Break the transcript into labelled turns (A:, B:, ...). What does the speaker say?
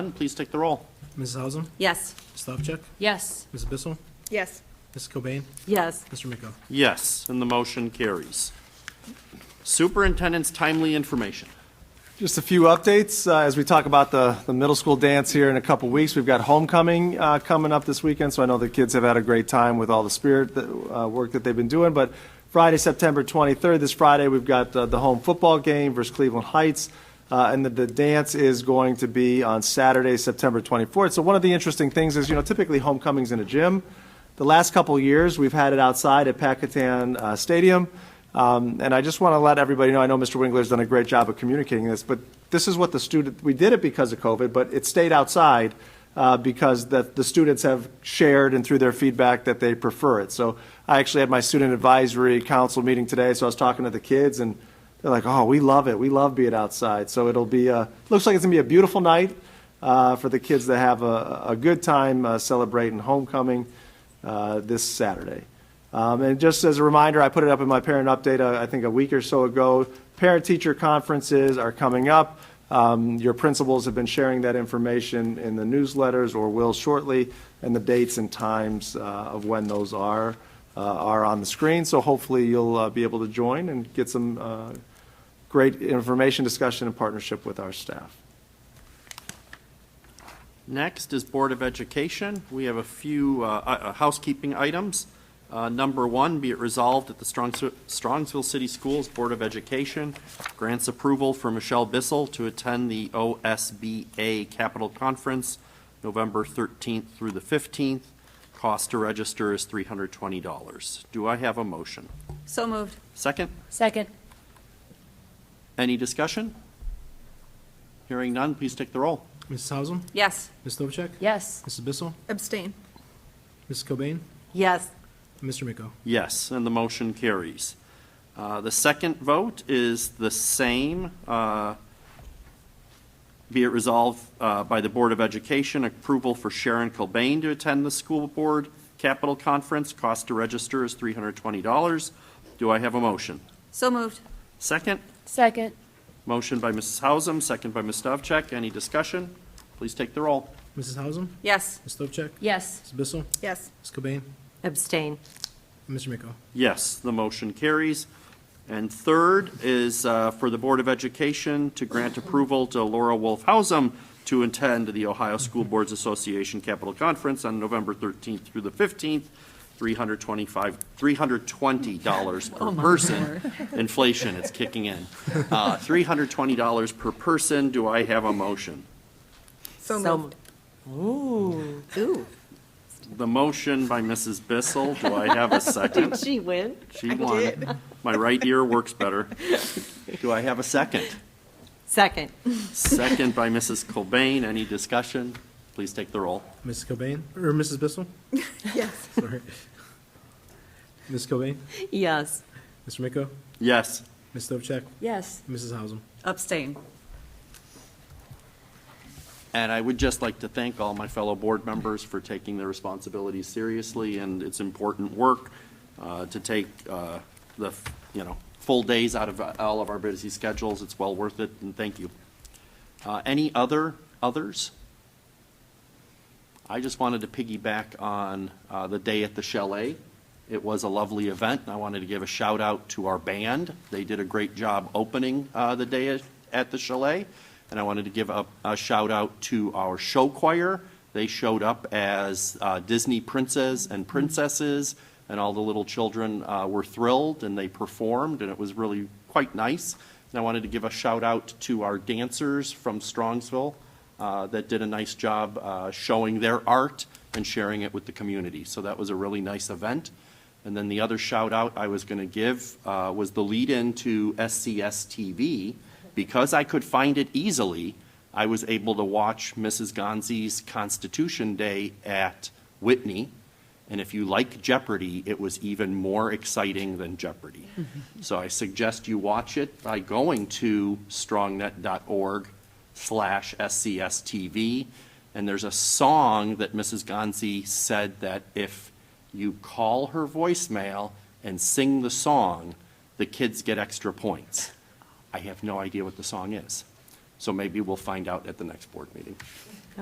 A: None, please take the roll.
B: Mrs. Hausum,
C: Yes.
B: Ms. Stavcek,
C: Yes.
B: Mrs. Bissell,
D: Yes.
B: Mrs. Cobain,
C: Yes.
B: Mr. Miko.
A: Yes, and the motion carries. Superintendent's timely information.
E: Just a few updates uh, as we talk about the, the middle school dance here in a couple weeks. We've got homecoming uh, coming up this weekend, so I know the kids have had a great time with all the spirit that, uh, work that they've been doing. But Friday, September 23rd, this Friday, we've got uh, the home football game versus Cleveland Heights. Uh, and the, the dance is going to be on Saturday, September 24th. So one of the interesting things is, you know, typically homecoming's in a gym. The last couple of years, we've had it outside at Packatan uh, Stadium. Um, And I just want to let everybody know, I know Mr. Winkler's done a great job of communicating this, but this is what the student, we did it because of COVID, but it stayed outside uh, because that the students have shared and through their feedback that they prefer it. So I actually had my student advisory council meeting today, so I was talking to the kids and they're like, oh, we love it. We love being outside. So it'll be, uh, looks like it's going to be a beautiful night uh, for the kids to have a, a good time uh, celebrating homecoming uh, this Saturday. Um, And just as a reminder, I put it up in my parent update, uh, I think a week or so ago, parent-teacher conferences are coming up. Um, Your principals have been sharing that information in the newsletters or will shortly, and the dates and times uh, of when those are, uh, are on the screen. So hopefully you'll uh, be able to join and get some uh, great information, discussion, and partnership with our staff.
A: Next is Board of Education. We have a few uh, uh, housekeeping items. Uh, Number one, be it resolved that the Strongs- Strongsville City Schools Board of Education grants approval for Michelle Bissell to attend the OSBA Capital Conference, November 13th through the 15th. Cost to register is $320. Do I have a motion?
C: So moved.
A: Second?
C: Second.
A: Any discussion? Hearing none, please take the roll.
B: Mrs. Hausum,
C: Yes.
B: Ms. Stavcek,
C: Yes.
B: Mrs. Bissell,
D: Abstain.
B: Mrs. Cobain,
C: Yes.
B: and Mr. Miko.
A: Yes, and the motion carries. Uh, The second vote is the same. uh, Be it resolved uh, by the Board of Education, approval for Sharon Cobain to attend the school board capital conference. Cost to register is $320. Do I have a motion?
C: So moved.
A: Second,
C: Second.
A: motion by Mrs. Hausum, second by Ms. Stavcek. Any discussion? Please take the roll.
B: Mrs. Hausum,
C: Yes.
B: Ms. Stavcek,
C: Yes.
B: Mrs. Bissell,
D: Yes.
B: Ms. Cobain,
C: Abstain.
B: and Mr. Miko.
A: Yes, the motion carries. And third is uh, for the Board of Education to grant approval to Laura Wolfhausum to attend the Ohio School Boards Association Capital Conference on November 13th through the 15th, 325, $320 per person. Inflation, it's kicking in. Uh, $320 per person. Do I have a motion?
D: So moved.
C: Ooh.
A: The motion by Mrs. Bissell. Do I have a second?
C: She win?
A: She won. My right ear works better. Do I have a second?
C: Second.
A: Second by Mrs. Cobain. Any discussion? Please take the roll.
B: Mrs. Cobain, or Mrs. Bissell,
D: Yes.
B: sorry. Ms. Cobain,
C: Yes.
B: Mr. Miko,
A: Yes,
B: Ms. Stavcek,
C: Yes.
B: Mrs. Hausum.
C: Abstain.
A: and I would just like to thank all my fellow board members for taking their responsibilities seriously, and it's important work uh, to take uh, the, you know, full days out of uh, all of our busy schedules. It's well worth it, and thank you. Uh, Any other, others? I just wanted to piggyback on uh, the day at the Chalet. It was a lovely event, and I wanted to give a shout out to our band. They did a great job opening uh, the day at- at the Chalet, and I wanted to give a, a shout out to our show choir. They showed up as uh, Disney princes and princesses, and all the little children uh, were thrilled, and they performed, and it was really quite nice. And I wanted to give a shout out to our dancers from Strongsville uh, that did a nice job uh, showing their art and sharing it with the community. So that was a really nice event. And then the other shout out I was going to give uh, was the lead in to SCS TV. Because I could find it easily, I was able to watch Mrs. Gonzi's Constitution Day at Whitney. And if you like Jeopardy, it was even more exciting than Jeopardy. So I suggest you watch it by going to strongnet.org slash SCSTV. And there's a song that Mrs. Gonzi said that if you call her voicemail and sing the song, the kids get extra points. I have no idea what the song is. So maybe we'll find out at the next board meeting.